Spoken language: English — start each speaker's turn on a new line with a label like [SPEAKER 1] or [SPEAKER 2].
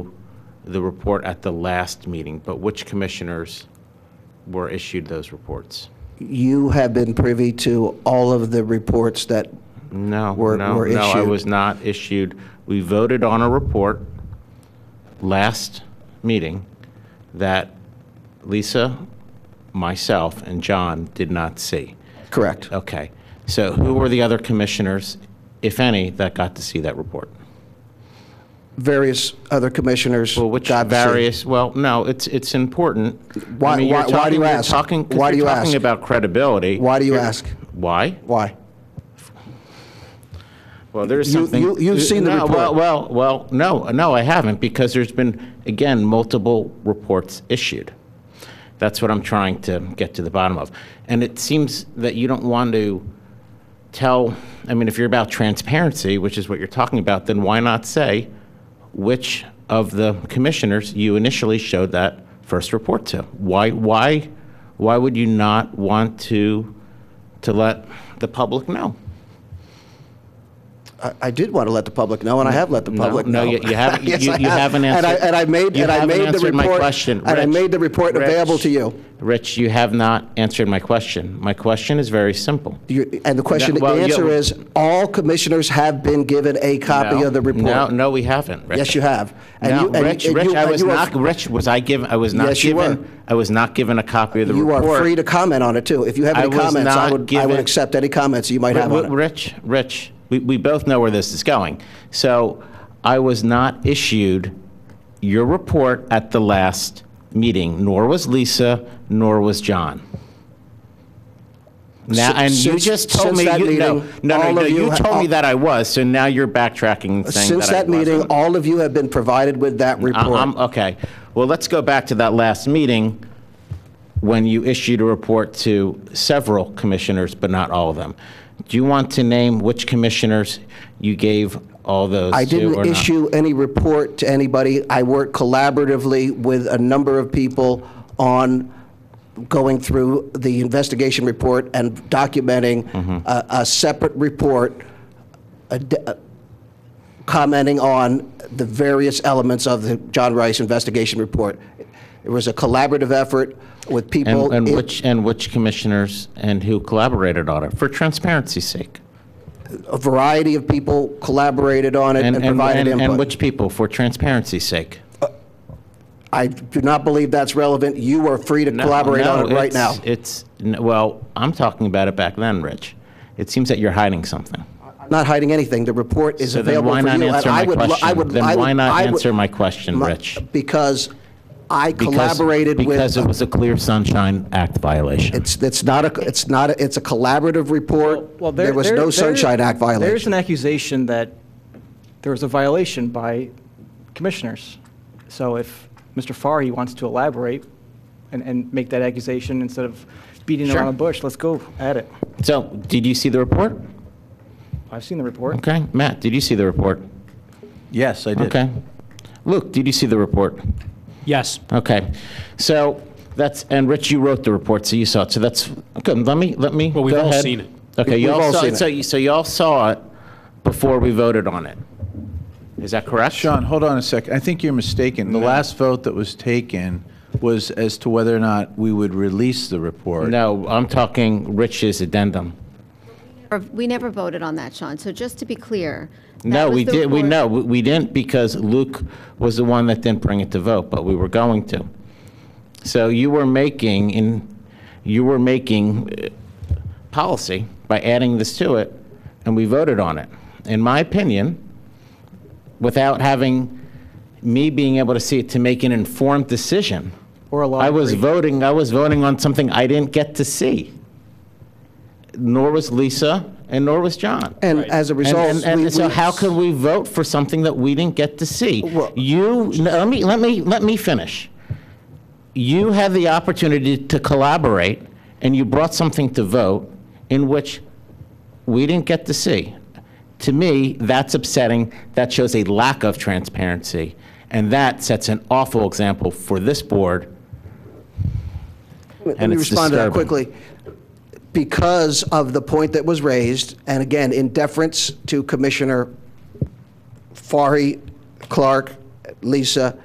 [SPEAKER 1] the report at the last meeting, but which commissioners were issued those reports?
[SPEAKER 2] You have been privy to all of the reports that,
[SPEAKER 1] No,
[SPEAKER 2] Were-
[SPEAKER 1] no,
[SPEAKER 2] were
[SPEAKER 1] no, I
[SPEAKER 2] issued.
[SPEAKER 1] was not issued. We voted on a report last meeting that Lisa, myself, and John did not see.
[SPEAKER 2] correct?
[SPEAKER 1] Okay, so who were the other commissioners, if any, that got to see that report?
[SPEAKER 2] Various other commissioners.
[SPEAKER 1] Well, which
[SPEAKER 2] got to see-
[SPEAKER 1] various, well, no, it's, it's important.
[SPEAKER 2] Why-
[SPEAKER 1] I mean,
[SPEAKER 2] why-
[SPEAKER 1] you're
[SPEAKER 2] why do
[SPEAKER 1] talking-
[SPEAKER 2] you
[SPEAKER 1] you're
[SPEAKER 2] ask?
[SPEAKER 1] talking- 'cause
[SPEAKER 2] Why do
[SPEAKER 1] you're
[SPEAKER 2] you
[SPEAKER 1] talking
[SPEAKER 2] ask?
[SPEAKER 1] about credibility.
[SPEAKER 2] Why do you
[SPEAKER 1] You're-
[SPEAKER 2] ask?
[SPEAKER 1] Why?
[SPEAKER 2] Why?
[SPEAKER 1] Well, there's
[SPEAKER 2] You-
[SPEAKER 1] something.
[SPEAKER 2] you- you've seen the
[SPEAKER 1] No,
[SPEAKER 2] report.
[SPEAKER 1] Well, well, well, no, no, I haven't, because there's been, again, multiple reports issued. That's what I'm trying to get to the bottom of. And it seems that you don't want to tell, I mean, if you're about transparency, which is what you're talking about, then why not say which of the commissioners you initially showed that first report to? Why, why, why would you not want to, to let the public know?
[SPEAKER 2] I- I did want to let the public know, and I have let the public
[SPEAKER 1] no,
[SPEAKER 2] know.
[SPEAKER 1] you- you haven't-
[SPEAKER 2] Yes,
[SPEAKER 1] you-
[SPEAKER 2] I
[SPEAKER 1] you
[SPEAKER 2] have.
[SPEAKER 1] haven't
[SPEAKER 2] And I-
[SPEAKER 1] answered-
[SPEAKER 2] And I made,
[SPEAKER 1] you
[SPEAKER 2] and I
[SPEAKER 1] haven't
[SPEAKER 2] made the
[SPEAKER 1] answered my
[SPEAKER 2] report.
[SPEAKER 1] question.
[SPEAKER 2] And I
[SPEAKER 1] Rich,
[SPEAKER 2] made the report
[SPEAKER 1] Rich.
[SPEAKER 2] available to you.
[SPEAKER 1] Rich, you have not answered my question. My question is very simple.
[SPEAKER 2] You- And the question, the
[SPEAKER 1] well, you-
[SPEAKER 2] answer is, all commissioners have been given a copy
[SPEAKER 1] No,
[SPEAKER 2] of the
[SPEAKER 1] No,
[SPEAKER 2] report.
[SPEAKER 1] no, we haven't, Rich.
[SPEAKER 2] Yes, you have. And
[SPEAKER 1] No,
[SPEAKER 2] you- and-
[SPEAKER 1] Rich,
[SPEAKER 2] and
[SPEAKER 1] Rich,
[SPEAKER 2] you-
[SPEAKER 1] I
[SPEAKER 2] and
[SPEAKER 1] was
[SPEAKER 2] you are-
[SPEAKER 1] not, Rich, was I given, I was not
[SPEAKER 2] Yes, you were.
[SPEAKER 1] given, I was not given a copy of the
[SPEAKER 2] You
[SPEAKER 1] report.
[SPEAKER 2] are free to comment on it, too. If you have
[SPEAKER 1] I
[SPEAKER 2] any
[SPEAKER 1] was
[SPEAKER 2] comments, I
[SPEAKER 1] not
[SPEAKER 2] would, I would
[SPEAKER 1] given-
[SPEAKER 2] accept any comments you might have
[SPEAKER 1] Ri-
[SPEAKER 2] on it.
[SPEAKER 1] Rich, Rich, we, we both know where this is going. So I was not issued your report at the last meeting, nor was Lisa, nor was John. Now,
[SPEAKER 2] Si-
[SPEAKER 1] and you
[SPEAKER 2] since-
[SPEAKER 1] just told
[SPEAKER 2] since
[SPEAKER 1] me,
[SPEAKER 2] that
[SPEAKER 1] you, no,
[SPEAKER 2] meeting,
[SPEAKER 1] no, no,
[SPEAKER 2] all
[SPEAKER 1] no,
[SPEAKER 2] of
[SPEAKER 1] you
[SPEAKER 2] you ha-
[SPEAKER 1] told me
[SPEAKER 2] all-
[SPEAKER 1] that I was, so now you're backtracking and saying
[SPEAKER 2] Since
[SPEAKER 1] that I
[SPEAKER 2] that meeting,
[SPEAKER 1] wasn't.
[SPEAKER 2] all of you have been provided with that
[SPEAKER 1] I- I'm,
[SPEAKER 2] report.
[SPEAKER 1] okay, well, let's go back to that last meeting when you issued a report to several commissioners, but not all of them. Do you want to name which commissioners you gave all those
[SPEAKER 2] I
[SPEAKER 1] to or
[SPEAKER 2] didn't
[SPEAKER 1] not?
[SPEAKER 2] issue any report to anybody. I worked collaboratively with a number of people on going through the investigation report and documenting
[SPEAKER 1] Mm-hmm.
[SPEAKER 2] a, a separate report, a d- uh, commenting on the various elements of the John Rice investigation report. It was a collaborative effort with people.
[SPEAKER 1] And, and
[SPEAKER 2] in-
[SPEAKER 1] which, and which commissioners and who collaborated on it, for transparency's sake?
[SPEAKER 2] A variety of people collaborated on it and provided
[SPEAKER 1] and-
[SPEAKER 2] input.
[SPEAKER 1] And which people, for transparency's sake?
[SPEAKER 2] I do not believe that's relevant. You are free to
[SPEAKER 1] No,
[SPEAKER 2] collaborate
[SPEAKER 1] no,
[SPEAKER 2] on it right now.
[SPEAKER 1] it's- It's, n- well, I'm talking about it back then, Rich. It seems that you're hiding something.
[SPEAKER 2] I'm Not hiding anything. The report is
[SPEAKER 1] So then
[SPEAKER 2] available for
[SPEAKER 1] why
[SPEAKER 2] you.
[SPEAKER 1] not
[SPEAKER 2] and
[SPEAKER 1] answer
[SPEAKER 2] I
[SPEAKER 1] my
[SPEAKER 2] would lo- I
[SPEAKER 1] question?
[SPEAKER 2] would-
[SPEAKER 1] Then
[SPEAKER 2] I would-
[SPEAKER 1] why not
[SPEAKER 2] I would-
[SPEAKER 1] answer my question,
[SPEAKER 2] my-
[SPEAKER 1] Rich?
[SPEAKER 2] Because I
[SPEAKER 1] Because-
[SPEAKER 2] collaborated with.
[SPEAKER 1] Because it was a Clear Sunshine Act violation.
[SPEAKER 2] It's, it's not a, it's not, a- it's a collaborative report.
[SPEAKER 3] Well,
[SPEAKER 2] There was no Sunshine Act
[SPEAKER 3] There's
[SPEAKER 2] violation.
[SPEAKER 3] an accusation that there was a violation by commissioners. So if Mr. Farhi wants to elaborate and, and make that accusation instead of beating
[SPEAKER 1] Sure.
[SPEAKER 3] around the bush, let's go at it.
[SPEAKER 1] So, did you see the report?
[SPEAKER 3] I've seen the report.
[SPEAKER 1] Okay, Matt, did you see the report?
[SPEAKER 4] Yes, I did.
[SPEAKER 1] Okay. Luke, did you see the report?
[SPEAKER 5] Yes.
[SPEAKER 1] Okay, so that's, and Rich, you wrote the report, so you saw it, so that's, okay, let me, let me,
[SPEAKER 5] Well, we've
[SPEAKER 1] go
[SPEAKER 5] all
[SPEAKER 1] ahead.
[SPEAKER 5] seen it.
[SPEAKER 1] Okay, you
[SPEAKER 2] We've
[SPEAKER 1] all
[SPEAKER 2] all
[SPEAKER 1] saw
[SPEAKER 2] seen
[SPEAKER 1] it,
[SPEAKER 2] it.
[SPEAKER 1] so you, so you all saw it before we voted on it. Is that correct?
[SPEAKER 4] Sean, hold on a second. I think you're mistaken. The last vote that was taken was as to whether or not we would release the report.
[SPEAKER 1] No, I'm talking Rich's addendum.
[SPEAKER 6] Or- We never voted on that, Sean, so just to be clear. that
[SPEAKER 1] No,
[SPEAKER 6] was
[SPEAKER 1] we
[SPEAKER 6] the
[SPEAKER 1] did, we,
[SPEAKER 6] report-
[SPEAKER 1] no, we- we didn't because Luke was the one that didn't bring it to vote, but we were going to. So you were making, in, you were making uh, policy by adding this to it, and we voted on it. In my opinion, without having me being able to see it to make an informed decision.
[SPEAKER 3] Or a law
[SPEAKER 1] I was
[SPEAKER 3] degree.
[SPEAKER 1] voting, I was voting on something I didn't get to see. Nor was Lisa, and nor was John.
[SPEAKER 2] And as a
[SPEAKER 1] And-
[SPEAKER 2] result.
[SPEAKER 1] And, and
[SPEAKER 2] we-
[SPEAKER 1] so
[SPEAKER 2] we-
[SPEAKER 1] how can we vote for something that we didn't get to see?
[SPEAKER 2] Well-
[SPEAKER 1] You, no, let me, let me, let me finish. You had the opportunity to collaborate, and you brought something to vote in which we didn't get to see. To me, that's upsetting. That shows a lack of transparency, and that sets an awful example for this board.
[SPEAKER 2] Let
[SPEAKER 1] and
[SPEAKER 2] me
[SPEAKER 1] it's
[SPEAKER 2] respond to that
[SPEAKER 1] disturbing.
[SPEAKER 2] quickly. Because of the point that was raised, and again, in deference to Commissioner Fari, Clark, Lisa,